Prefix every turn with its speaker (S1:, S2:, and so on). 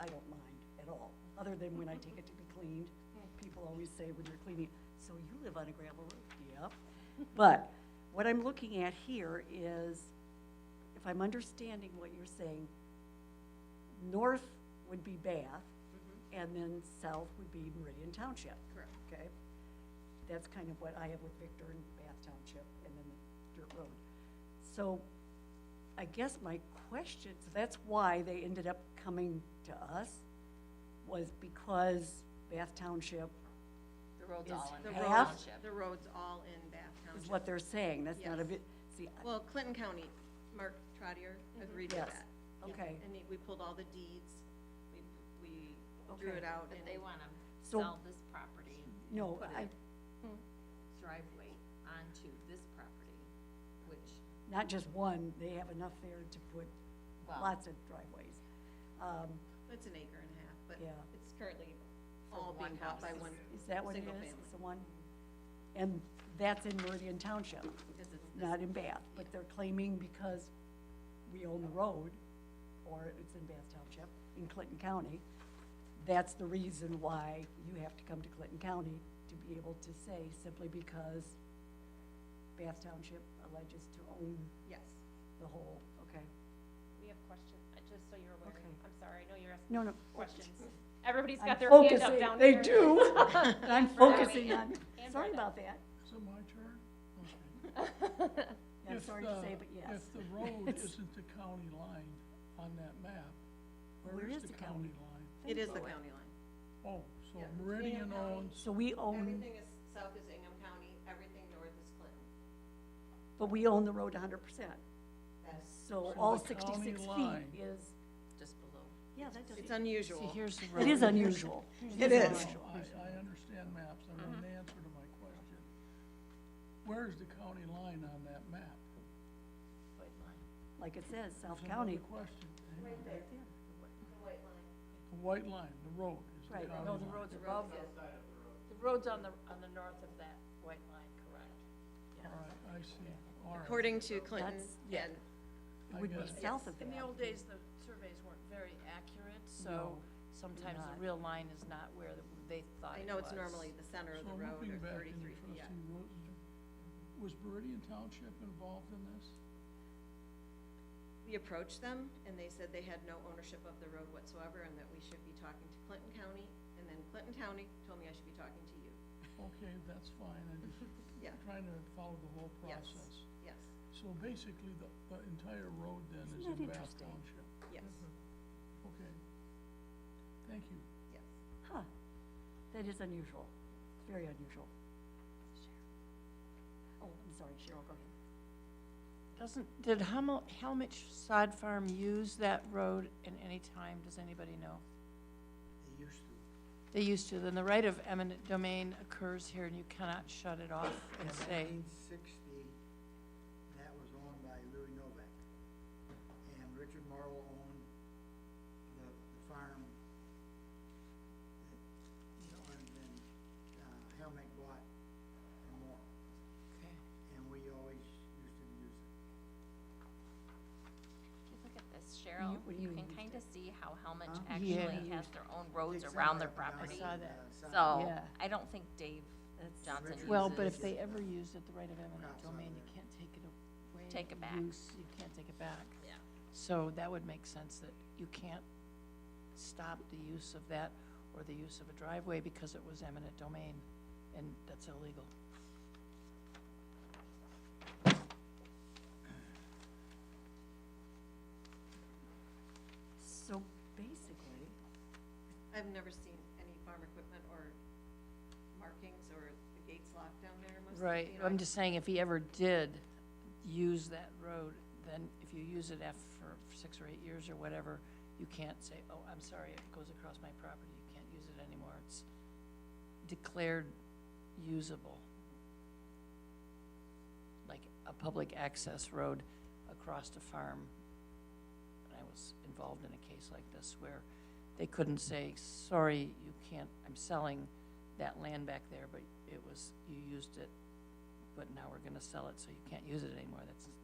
S1: I don't mind at all, other than when I take it to be cleaned. People always say when they're cleaning, so you live on a gravel road, yep. But what I'm looking at here is, if I'm understanding what you're saying, north would be Bath, and then south would be Meridian Township.
S2: Correct.
S1: Okay? That's kind of what I have with Victor and Bath Township, and then the dirt road. So I guess my question, so that's why they ended up coming to us, was because Bath Township
S3: The road's
S1: Is
S3: all in
S2: The
S3: Bath
S1: road-
S2: roads,
S3: Township.
S2: the roads all in Bath
S1: is what
S2: Township.
S1: they're saying, that's not a
S2: Yes.
S1: bit, see, I-
S2: Well, Clinton County, Mark Trotter agreed with
S1: Yes,
S2: that.
S1: okay.
S2: And we pulled all the deeds, we, we drew
S1: Okay.
S2: it out
S3: But
S2: and.
S3: they wanna
S1: So-
S3: sell this property,
S1: no,
S3: put
S1: I,
S3: it- driveway onto this property, which,
S1: not just one, they have enough there to put
S3: Wow.
S1: lots of driveways. Um,
S2: It's an acre and a half, but
S1: Yeah.
S2: it's currently
S3: For
S2: all being
S3: one
S2: bought by
S3: house.
S2: one,
S1: Is that what it
S2: single
S1: is?
S2: family.
S1: It's the one? And that's in Meridian Township,
S2: Because it's this-
S1: not in Bath, but they're claiming because we own the road, or it's in Bath Township, in Clinton County, that's the reason why you have to come to Clinton County to be able to say, simply because Bath Township alleges to own
S2: yes.
S1: the whole, okay?
S4: We have questions, uh, just so you're aware.
S1: Okay.
S4: I'm sorry, I know you're asking
S1: No, no.
S4: questions. Everybody's
S1: I'm
S4: got their hand up
S1: focusing-
S4: down
S1: They
S4: here.
S1: do. I'm focusing on,
S4: And
S1: sorry
S4: Brenda.
S1: about that.
S5: Is it my turn? Okay.
S1: I'm
S5: If
S1: sorry to
S5: the-
S1: say, but yes.
S5: If the road isn't the county line on that map, where is the county line?
S2: It is the county line.
S5: Oh, so
S2: Yeah.
S5: Meridian
S2: Yeah.
S5: owns,
S1: So we own,
S2: Everything is, south is Ingham County, everything north is Clinton.
S1: but we own the road hundred percent.
S2: That's-
S1: So
S5: So
S1: all
S5: the county
S1: sixty-six feet
S5: line-
S1: is,
S3: just below.
S1: yeah, that
S2: It's
S1: doesn't,
S2: unusual.
S6: See, here's the road.
S1: it is unusual.
S2: It
S5: I,
S2: is.
S5: I understand maps, I
S1: Uh-huh.
S5: mean, the answer to my question. Where is the county line on that map?
S1: Like it says, South
S6: Mm-hmm.
S5: That's
S1: County,
S5: Another question.
S2: there. white line.
S5: The white line, the road is the
S1: Right. oh,
S5: county line.
S6: No, the road's above it. The road's on the, on the north of that white line, correct?
S5: All right, I see, all right.
S2: According to Clinton,
S6: yeah.
S2: and
S5: I
S1: it would be
S5: guess-
S1: south of
S6: In the
S1: that.
S6: old days, the surveys weren't very accurate, so sometimes
S1: not.
S6: the real line is not where the- they thought
S2: I
S6: it was.
S2: know it's normally the center of
S5: So
S2: the road or
S5: looking back into
S2: thirty-three feet, yeah.
S5: trustee Rosenberg, was Meridian Township involved in this?
S2: We approached them and they said they had no ownership of the road whatsoever and that we should be talking to Clinton County. And then Clinton County told me I should be talking to you.
S5: Okay, that's fine, I'm just
S2: Yeah.
S5: trying to follow the whole
S2: Yes,
S5: process.
S2: yes,
S5: So basically, the, the entire road then is
S1: Isn't that
S5: in Bath
S1: interesting?
S5: Township,
S2: yes,
S6: Mm-hmm.
S5: okay. Thank you.
S2: yes.
S1: Huh, that is unusual, very unusual. Oh, I'm sorry, Cheryl, go ahead.
S6: Doesn't, did Helmut, Helmut Sod Farm use that road in any time, does anybody know? They used to. They used to, then the right of eminent domain occurs here and you cannot shut it off and say,
S7: In nineteen sixty, that was owned by Louis Novak. And Richard Morrow owned the, the farm that, you know, and then, uh, Helmick bought from Morrow,
S6: okay.
S7: and we always used to use it.
S3: If you look at this, Cheryl,
S1: what do
S3: you
S1: you
S3: can
S1: mean?
S3: kinda see how Helmut
S7: Huh?
S3: actually
S6: Yeah.
S3: has their own roads
S7: Takes
S3: around
S7: that
S3: their
S7: up and
S3: property.
S7: down the,
S6: I saw that.
S7: uh,
S3: So,
S7: side.
S6: Yeah.
S3: I don't think Dave
S1: That's-
S3: Johnson uses.
S6: Well, but if they ever used it, the right of eminent
S7: Crops on
S6: domain, you
S7: there.
S6: can't take it away.
S3: Take it back.
S6: use- You can't take it back.
S3: Yeah.
S6: So that would make sense that you can't stop the use of that or the use of a driveway because it was eminent domain, and that's illegal.
S1: So basically,
S2: I've never seen any farm equipment or markings or the gates locked down there most of the,
S6: Right,
S2: you know, I-
S6: I'm just saying if he ever did use that road, then if you use it after for six or eight years or whatever, you can't say, oh, I'm sorry, it goes across my property, you can't use it anymore, it's declared usable. Like a public access road across a farm. And I was involved in a case like this where they couldn't say, sorry, you can't, I'm selling that land back there, but it was, you used it, but now we're gonna sell it, so you can't use it anymore, that's